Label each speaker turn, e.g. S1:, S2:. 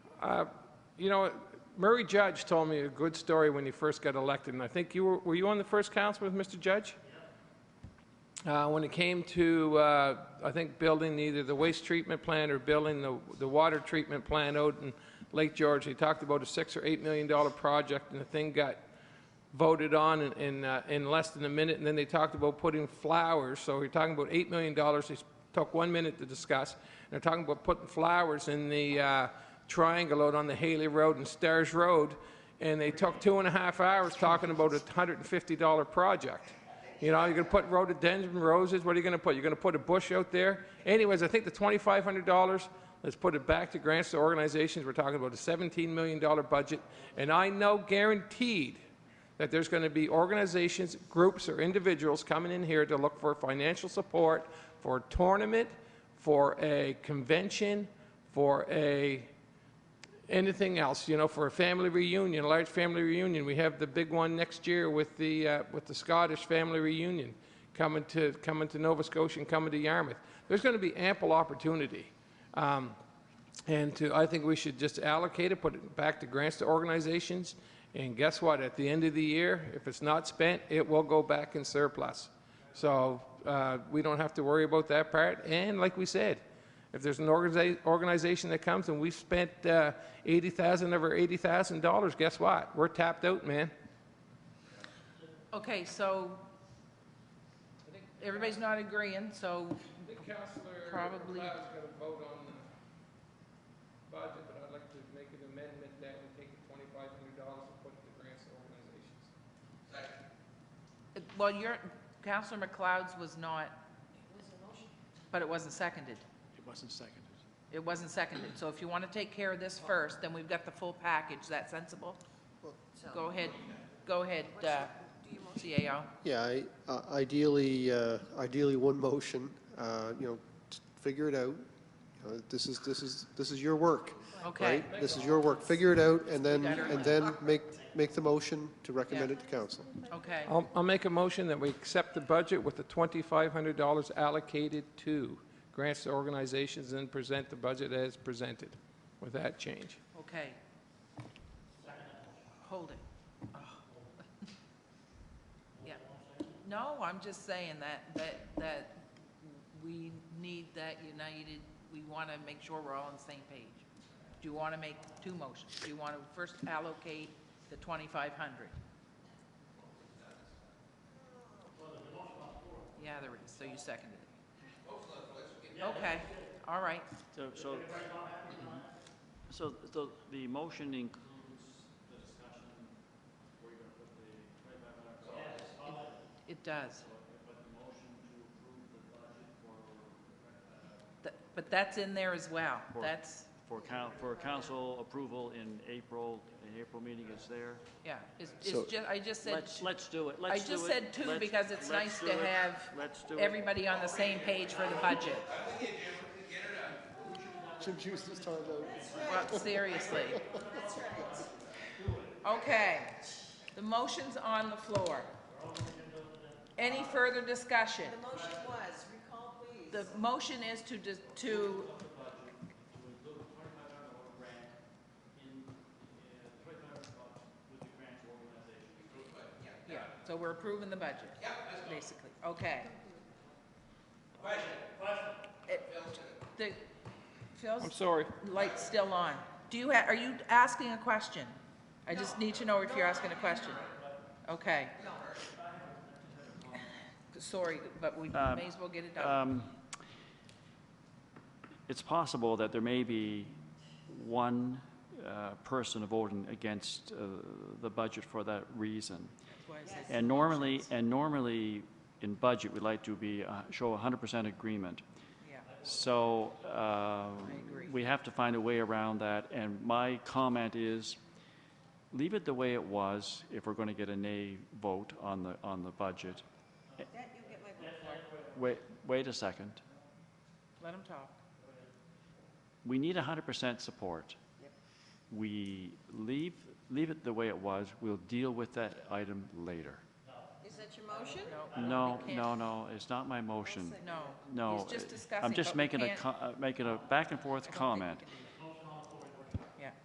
S1: Uh, You know, Murray Judge told me a good story when he first got elected, and I think you were, were you on the first council with Mr. Judge? Uh, When it came to, uh, I think, building either the waste treatment plant or building the, the water treatment plant out in Lake George, he talked about a six or eight million dollar project, and the thing got voted on in, in, uh, in less than a minute, and then they talked about putting flowers, so we're talking about $8 million, they s- took one minute to discuss, and they're talking about putting flowers in the uh, triangle out on the Haley Road and Stairs Road, and they took two and a half hours talking about a $150 project. You know, you're going to put rhododendron roses, what are you going to put? You're going to put a bush out there? Anyways, I think the $2,500, let's put it back to grants to organizations, we're talking about a $17 million budget, and I know guaranteed that there's going to be organizations, groups, or individuals coming in here to look for financial support for a tournament, for a convention, for a anything else, you know, for a family reunion, a large family reunion. We have the big one next year with the, uh, with the Scottish family reunion coming to, coming to Nova Scotia and coming to Yarmouth. There's going to be ample opportunity. Um, and to, I think we should just allocate it, put it back to grants to organizations. And guess what? At the end of the year, if it's not spent, it will go back in surplus. So uh, we don't have to worry about that part. And like we said, if there's an organiza- organization that comes and we've spent uh, 80,000 of our $80,000, guess what? We're tapped out, man.
S2: Okay, so everybody's not agreeing, so,
S1: I think Councillor
S2: Probably. Cloud's
S1: going to vote on the budget, but I'd like to make an amendment that we take the $2,500 and put it to grants to organizations.
S2: well, your, Counselor McLeod's was not. But it wasn't seconded.
S3: It wasn't seconded.
S2: It wasn't seconded. So if you want to take care of this first, then we've got the full package. Is that sensible? Go ahead, go ahead, uh, CAO.
S4: Yeah, I- uh, ideally, uh, ideally, one motion, uh, you know, t- figure it out. You know, This is, this is, this is your work,
S2: Okay,
S4: right? This is your work. Figure it out, and then, and then make, make the motion to recommend
S2: Yeah.
S4: it to council.
S2: okay.
S1: I'll, I'll make a motion that we accept the budget with the $2,500 allocated to grants to organizations and present the budget as presented with that change.
S2: Okay. Hold it. Oh. Yeah. No, I'm just saying that, that, that we need that united, we want to make sure we're all on the same page. Do you want to make two motions? Do you want to first allocate the 2,500? Yeah, there is, so you seconded it. Okay, all right.
S3: So, so, so the, the motion in.
S2: It does. Th- uh, But that's in there as well.
S3: For-
S2: That's,
S3: For coun, for council approval in April, in April meeting is there.
S2: yeah, it's,
S4: So-
S2: it's just, I just said,
S3: Let's, let's do it,
S2: I
S3: let's do it.
S2: just said two
S3: Let's-
S2: because it's
S3: let's
S2: nice
S3: do
S2: to
S3: it.
S2: have
S3: Let's do it.
S2: everybody on the same page for the budget. Well, seriously. Okay, the motion's on the floor. Any further discussion?
S5: The motion was, recall please.
S2: The motion is to, dis- to Yeah, so we're approving the budget? Yeah, Basically, okay. Question, question.
S1: I'm
S2: Phil's
S1: sorry.
S2: light's still on. Do you, ha- are you asking a question? I just need to know if you're asking a question. Okay. Sorry, but we
S3: Um,
S2: may as well get it done.
S3: Um, It's possible that there may be one uh, person voting against uh, the budget for that reason.
S2: That's why I said-
S3: And normally, and normally, in budget, we like to be, uh, show 100% agreement.
S2: Yeah,
S3: So um,
S2: agree.
S3: we have to find a way around that, and my comment is, leave it the way it was if we're going to get a nay vote on the, on the budget.
S5: That you get my vote for.
S3: Wait, wait a second.
S2: let him talk.
S3: We need 100% support. We leave, leave it the way it was, we'll deal with that item later.
S5: Is that your motion?
S2: No.
S3: No,
S2: we can't.
S3: no, no, it's not my motion.
S2: No.
S3: No.
S2: He's just
S3: uh,
S2: discussing,
S3: I'm just
S2: but we
S3: making a,
S2: can't-
S3: co- uh, making a back and
S2: I don't
S3: forth
S2: think we
S3: comment.
S2: can do